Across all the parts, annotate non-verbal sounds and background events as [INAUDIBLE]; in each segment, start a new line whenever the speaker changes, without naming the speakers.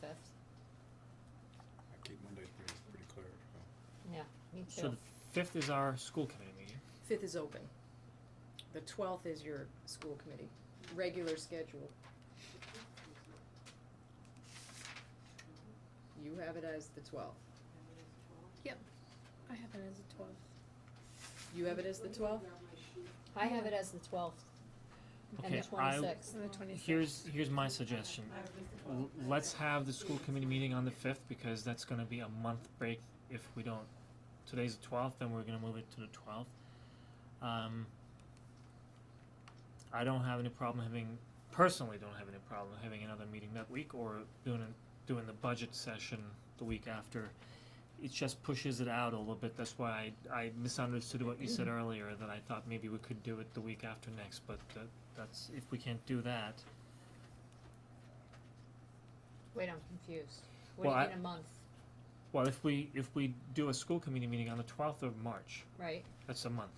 fifth.
I keep Mondays pretty, pretty clear, so.
Yeah, me
So
too.
the fifth is our school committee meeting.
Fifth is open. The twelfth is your school committee, regular schedule. You have it as the twelfth.
I have it as a twelve.
You have it as the twelfth?
I have it as the twelfth and
Okay,
the
I,
twenty-sixth.
And the twenty-sixth.
here's, here's my suggestion. L- Let's have the school committee meeting on the fifth because that's gonna be a month break if we don't, today's the twelfth, then we're gonna move it to the twelfth. Um, I don't have any problem having, personally don't have any problem having another meeting that week or doing, a- doing the budget session the week after. It just pushes it out a little bit, that's why I, I misunderstood what you said
Mm-hmm.
earlier, that I thought maybe we could do it the week after next, but that, that's, if we can't do that,
Wait, I'm confused. What do
Well,
you
I-
mean a month,
Well, if we, if we do a school committee meeting on the twelfth of March,
right?
that's a month.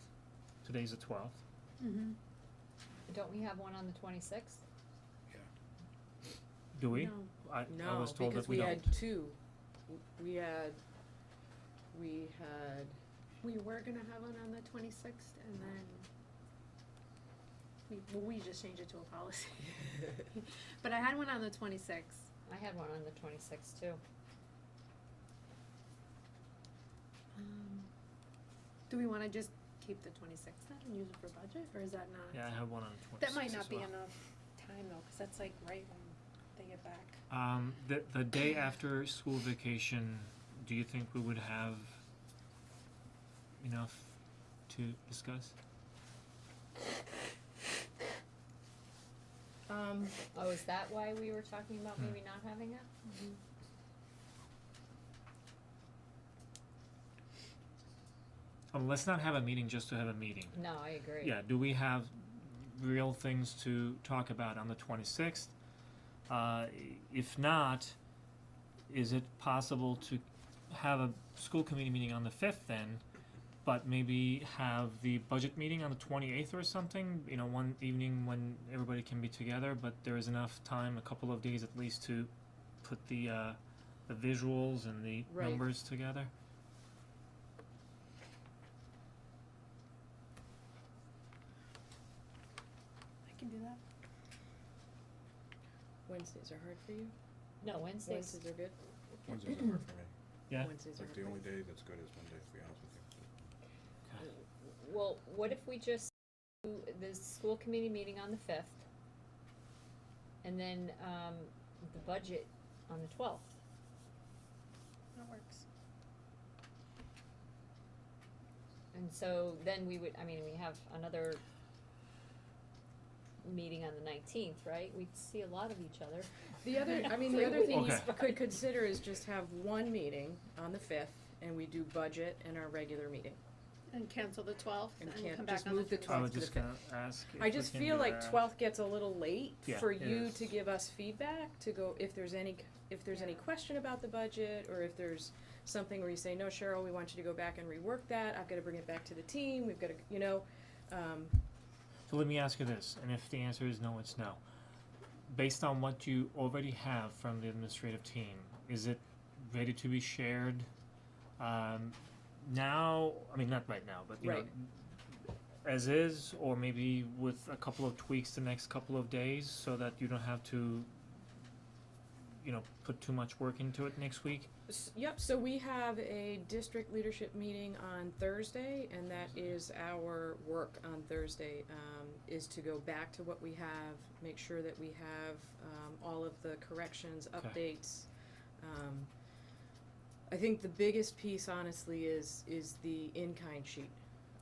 Today's the twelfth.
Mm-hmm.
Don't we have one on the twenty-sixth?
Do we?
No.
I, I
No,
was told
because
that
we
we don't.
had two. W- We had, we had,
We were gonna have one on the twenty-sixth and then we, well, we just changed it to a policy. [LAUGHS] But I had one on the twenty-sixth.
I had one on the twenty-sixth too.
Um, do we wanna just keep the twenty-sixth then and use it for budget or is that not?
Yeah, I have one on the
That
twenty-sixth
might not be enough time though, cause that's like right when they get back.
Um, the, the day after school vacation, do you think we would have enough to discuss?
um,
Oh, is that why we were talking about
Hmm.
maybe not having it?
Mm-hmm.
Um, let's not have a meeting just to have a meeting.
No, I agree.
Yeah, do we have real things to talk about on the twenty-sixth? Uh, if not, is it possible to have a school committee meeting on the fifth then? But maybe have the budget meeting on the twenty-eighth or something, you know, one evening when everybody can be together, but there is enough time, a couple of days at least to put the uh, the visuals and the
Right.
numbers together?
I can do that.
Wednesdays are hard for you?
No, Wednesdays,
Wednesdays are good?
Wednesdays don't work for me.
Yeah.
Wednesdays are
Like,
hard
the
for
only
me.
day that's good is Monday, to be honest with you.
well, what if we just do the school committee meeting on the fifth? And then, um, the budget on the twelfth?
That works.
And so then we would, I mean, we have another meeting on the nineteenth, right? We'd see a lot of each other.
The other, I mean,
[LAUGHS]
the
Three
other thing you
weeks.
s- could consider is just have one meeting on the fifth, and we do budget and our regular meeting.
And cancel the twelfth
And
and
can't-
come back
just
on the
move the
twenty-sixth.
12th.
I was
to the
just gonna ask if
I
we
just
can
feel
do
like
that.
twelfth gets a little late
Yeah,
for
it
you
is.
to give us feedback, to go, if there's any, if there's any
Yeah.
question about the budget, or if there's something where you say, no, Cheryl, we want you to go back and rework that, I've gotta bring it back to the team, we've gotta, you know, um,
So let me ask you this, and if the answer is no, it's no. Based on what you already have from the administrative team, is it ready to be shared um, now? I mean, not right now, but you
Right.
know, as is, or maybe with a couple of tweaks the next couple of days, so that you don't have to, you know, put too much work into it next week.
S- Yep, so we have a district leadership meeting on Thursday, and that is our work on Thursday, um, is to go back to what we have, make sure that we have, um, all of the corrections,
Okay.
updates. Um, I think the biggest piece honestly is, is the in-kind sheet.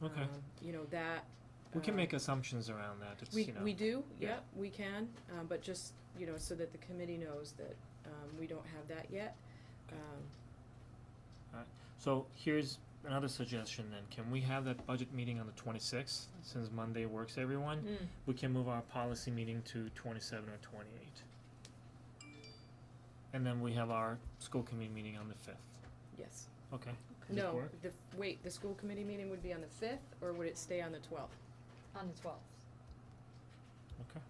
Okay,
Um, You know, that.
we can
uh,
make assumptions around that. It's
we,
you know.
we do,
yeah.
yep, we can, um, but just, you know, so that the committee knows that, um, we don't have that yet.
Okay.
Um,
So here's another suggestion then, can we have that budget meeting on the twenty-sixth, since Monday works everyone?
Mm-hmm. Mm,
We can move our policy meeting to twenty-seven or twenty-eight. And then we have our school committee meeting on the fifth,
yes.
okay? Does it
No,
work?
the, wait, the school committee meeting would be on the fifth, or would it stay on the twelfth?
On the twelfth.
Okay.